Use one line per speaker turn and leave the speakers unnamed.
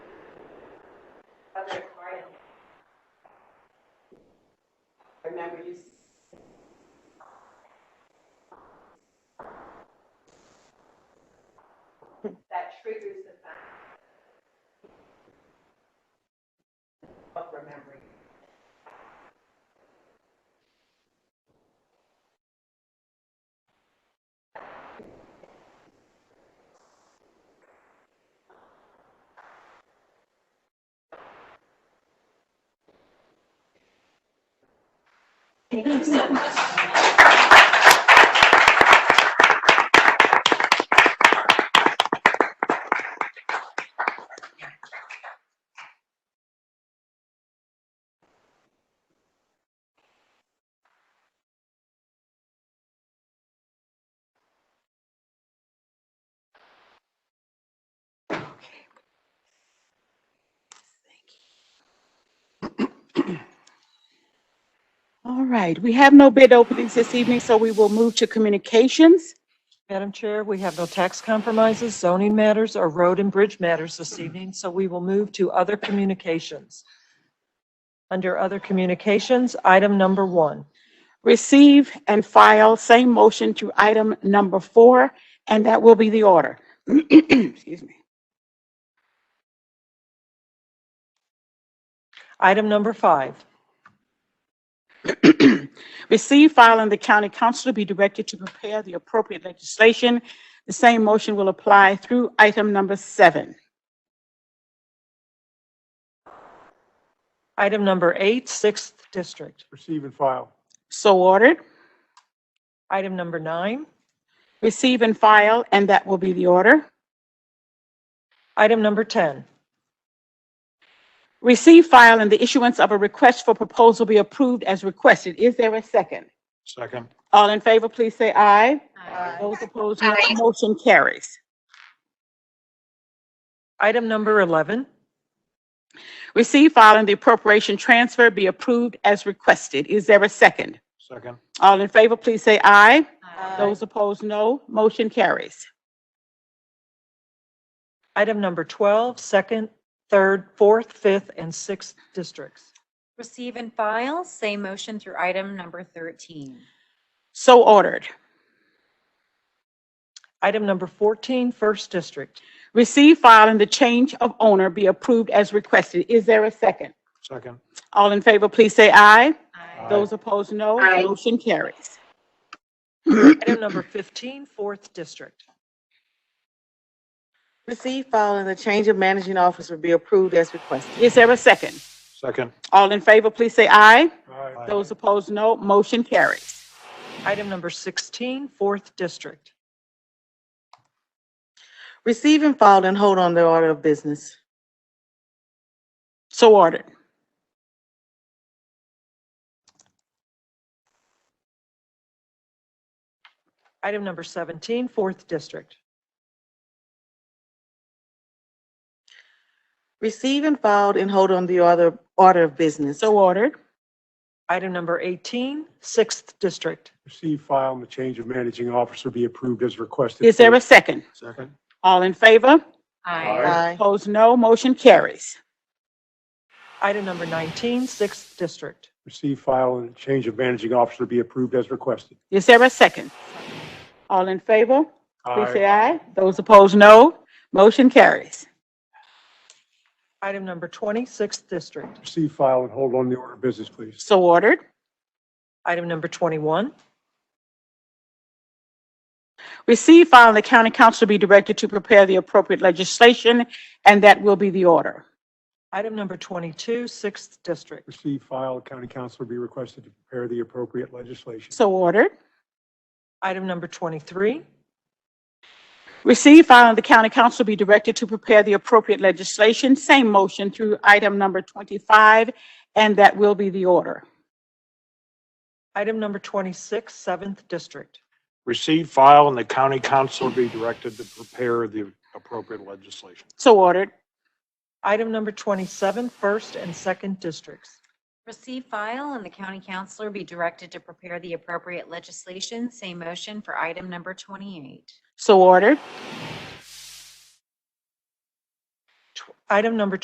Thank you so much. All right, we have no bid openings this evening, so we will move to communications.
Madam Chair, we have no tax compromises, zoning matters, or road and bridge matters this evening, so we will move to other communications. Under other communications, item number one.
Receive and file same motion to item number four, and that will be the order. Excuse me.
Item number five.
Receive, file, and the county council to be directed to prepare the appropriate legislation. The same motion will apply through item number seven.
Item number eight, sixth district.
Receive and file.
So ordered.
Item number nine.
Receive and file, and that will be the order.
Item number 10.
Receive, file, and the issuance of a request for proposal be approved as requested. Is there a second?
Second.
All in favor, please say aye. Those opposed, no. Motion carries.
Item number 11.
Receive, file, and the appropriation transfer be approved as requested. Is there a second?
Second.
All in favor, please say aye. Those opposed, no. Motion carries.
Item number 12, second, third, fourth, fifth, and sixth districts.
Receive and file, same motion through item number 13.
So ordered.
Item number 14, first district.
Receive, file, and the change of owner be approved as requested. Is there a second?
Second.
All in favor, please say aye.
Aye.
Those opposed, no. Motion carries.
Item number 15, fourth district.
Receive, file, and the change of managing officer be approved as requested.
Is there a second?
Second.
All in favor, please say aye.
Aye.
Those opposed, no. Motion carries.
Item number 16, fourth district.
Receive and file and hold on the order of business.
So ordered.
Item number 17, fourth district.
Receive and file and hold on the order, order of business.
So ordered.
Item number 18, sixth district.
Receive, file, and the change of managing officer be approved as requested.
Is there a second?
Second.
All in favor?
Aye.
Aye.
Opposed, no. Motion carries.
Item number 19, sixth district.
Receive, file, and the change of managing officer be approved as requested.
Is there a second? All in favor? Please say
Aye.
aye. Those opposed, no. Motion carries.
Item number 20, sixth district.
Receive, file, and hold on the order of business, please.
So ordered.
Item number 21.
Receive, file, and the county council be directed to prepare the appropriate legislation, and that will be the order.
Item number 22, sixth district.
Receive, file, county council be requested to prepare the appropriate legislation.
So ordered.
Item number 23.
Receive, file, and the county council be directed to prepare the appropriate legislation, same motion through item number 25, and that will be the order.
Item number 26, seventh district.
receive, file, and the county council be directed to prepare the appropriate legislation.
So ordered.
Item number 27, first and second districts.
Receive, file, and the county councilor be directed to prepare the appropriate legislation, same motion for item number 28.
So ordered.
Tw- Item number